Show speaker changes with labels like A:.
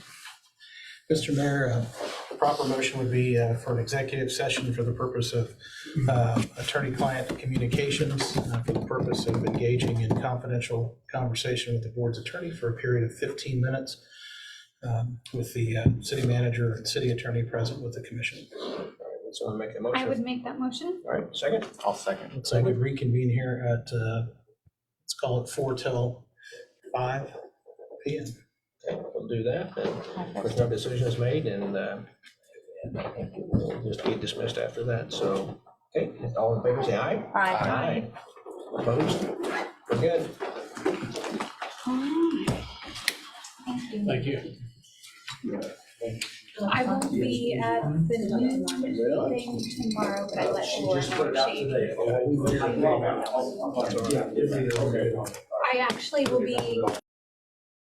A: Mr. Mayor, uh, the proper motion would be uh, for an executive session for the purpose of uh, attorney-client communications, uh, for the purpose of engaging in confidential conversation with the board's attorney for a period of 15 minutes um, with the uh, city manager and city attorney present with the commission.
B: Would someone make a
C: I would
B: motion?
C: make that motion.
B: All right, second?
D: I'll second.
A: Looks like we reconvene here at, uh, let's call it 4 till 5 PM.
B: Okay, We'll do that. and Of course, no decision is made and uh, and I think it will just be dismissed after that. So, okay, all in favor, say aye.
D: Aye.
B: Opposed? We're good.
C: Alright. Thank you.
E: Thank you.
C: I won't be at the new thing tomorrow, but I let you know.
B: today.
C: I actually will be